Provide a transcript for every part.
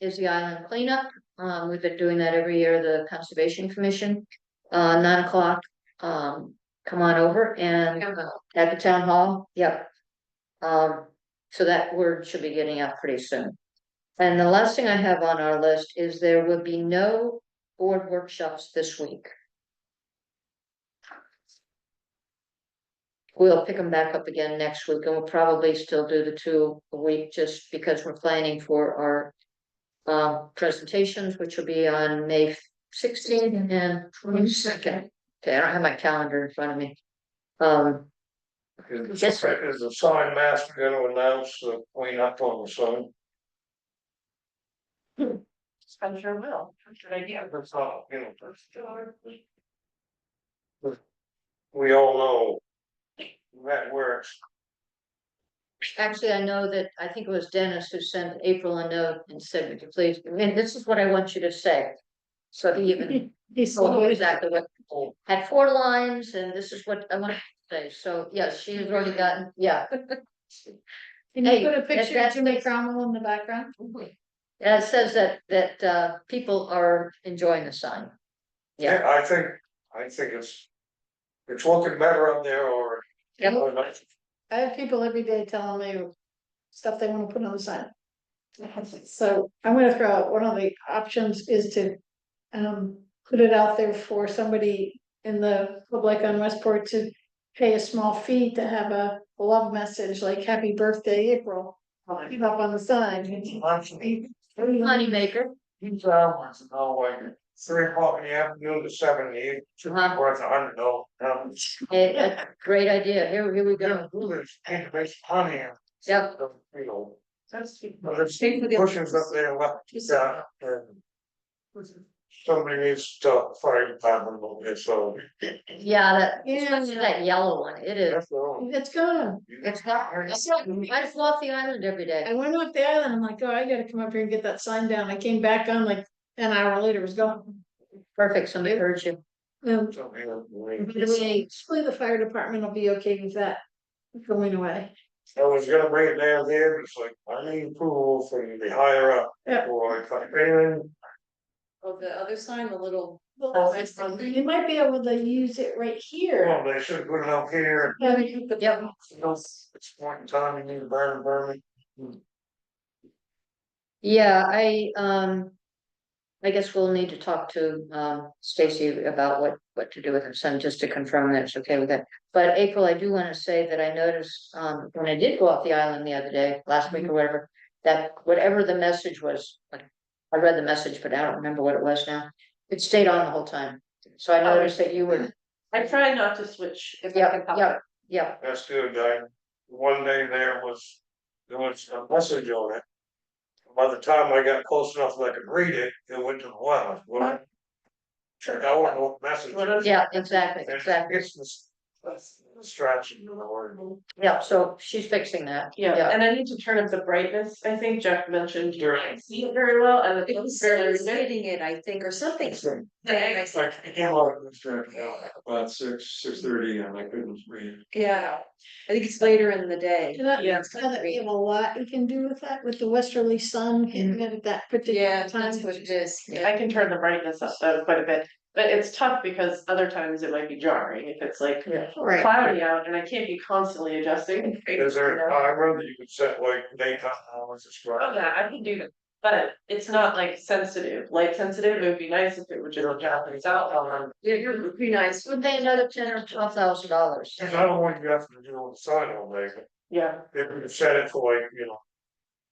is the island cleanup. Um, we've been doing that every year, the Conservation Commission, uh, nine o'clock. Um, come on over and uh, at the town hall, yep. Um, so that word should be getting out pretty soon. And the last thing I have on our list is there will be no board workshops this week. We'll pick them back up again next week and we'll probably still do the two a week just because we're planning for our. Um, presentations, which will be on May sixteenth and twenty second. Okay, I don't have my calendar in front of me. Um, Is Yes, sir. is the sign master gonna announce the cleanup on the sign? Spencer will, should I give? That's not, you know, we all know that works. Actually, I know that, I think it was Dennis who sent April a note and said, "Would you please, I mean, this is what I want you to say. So he even told her exactly what, had four lines and this is what I want to say, so yes, she has already gotten, yeah. Can Hey, you put a picture that's- of Jimmy Cromwell in the background? That says that, that, uh, people are enjoying the sign. Yeah, I think, I think it's, it's looking better up there or. Yep. or not. I have people every day telling me stuff they wanna put on the sign. So I'm gonna throw out, one of the options is to um put it out there for somebody in the public on Westport to pay a small fee to have a love message like happy birthday April Money up on the sign. moneymaker, These hours, now like three o'clock in the afternoon to seven, in the evening, should be Uh-huh. worth a hundred dollars. Now, a, a great idea, here, here we We're go, gonna do this, and to make honey. Yep. You know, That's. but there's bushes up there left, uh, yeah, and somebody needs to fire department over there, so. yeah, that, especially Yeah, that yellow one, it is. That's all. it's gone. It's not, it's not, I just walk the island every day, I went up the island, I'm like, oh, I gotta come up here and get that sign down. I came back on like an hour later, it was gone. perfect, somebody heard you. Um, So, yeah, we- Really? Hopefully the fire department will be okay with that going away. I was gonna bring it down there, but it's like, I need approval from the higher up, Yeah. or if I can, Of the other sign, the little. Well, You might be able to use it right here. well, they should put it out here. Yeah, Yep. You know, It's point in time, you need to burn, burn Yeah, I, um, I guess we'll need to talk to, um, Stacy about what, what to do with her son, just to confirm that it's okay with that. But April, I do wanna say that I noticed, um, when I did go off the island the other day, last Mm-hmm. week or whatever, that whatever the message was, like, I read the message, but I don't remember what it was now. It stayed on the whole time, so Oh, I noticed that you were, I try not to switch. if I yeah, can help yeah, it. yeah, That's good, I, one day there was, there was a message on it. By the time I got close enough that I could read it, it went to the well, well. Check out what the message. What is. is- yeah, exactly, And exactly, It's this, this distraction, the word. yeah, so she's fixing that, Yeah, yeah, and I need to turn up the brightness, I think Jeff mentioned you Sure. can't see it very well, and it It looks was fairly good. sitting it, I think, or something. It's like, Yeah, it's like, I can't hold it, it's dragging out, about six, six thirty, and I couldn't read. Yeah, I think it's later in the day. And that- Yeah. that We have a lot you can do with that, with the westerly sun hitting it at that Yeah, particular time. that's what it is. I can turn the brightness up though quite a bit, but it's tough because other times it might be jarring if it's like yeah. Right, cloudy out and I can't be constantly adjusting. Is there a you know? timer that you could set like daytime hours as Oh, well? yeah, I can do that, but it's not like sensitive, light sensitive, it would be nice if it would just drop things out on. It would be nice. Would they another ten or twelve thousand dollars? Cause I don't want you having to do on the side all day, but Yeah, if we could set it for like, you know.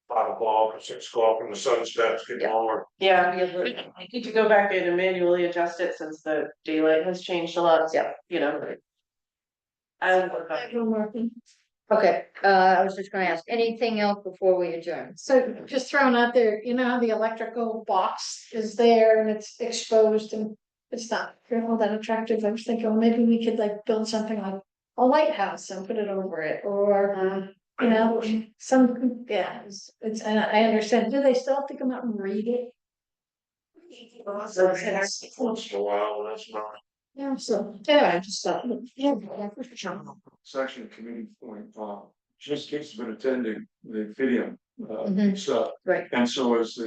Five o'clock or six o'clock and the sun starts getting Yeah. lower. yeah. Yeah, I need to go back in and manually adjust it since the daylight has changed a lot, Yeah. you know. I will work on it. Everyone working. okay, uh, I was just gonna ask, anything else before we adjourn? So just throwing out there, you know, how the electrical box is there and it's exposed and it's not all that attractive. I was thinking, well, maybe we could like build something like a lighthouse and put it over it or, you know, some, yeah, it's, it's, and I understand. Do they still have to come out and read it? So it's once in a while, that's not. Yeah, so, yeah, I just thought, yeah. section committee point, uh, just keeps been attending the video, uh, Mhm. stuff. Right. And so is the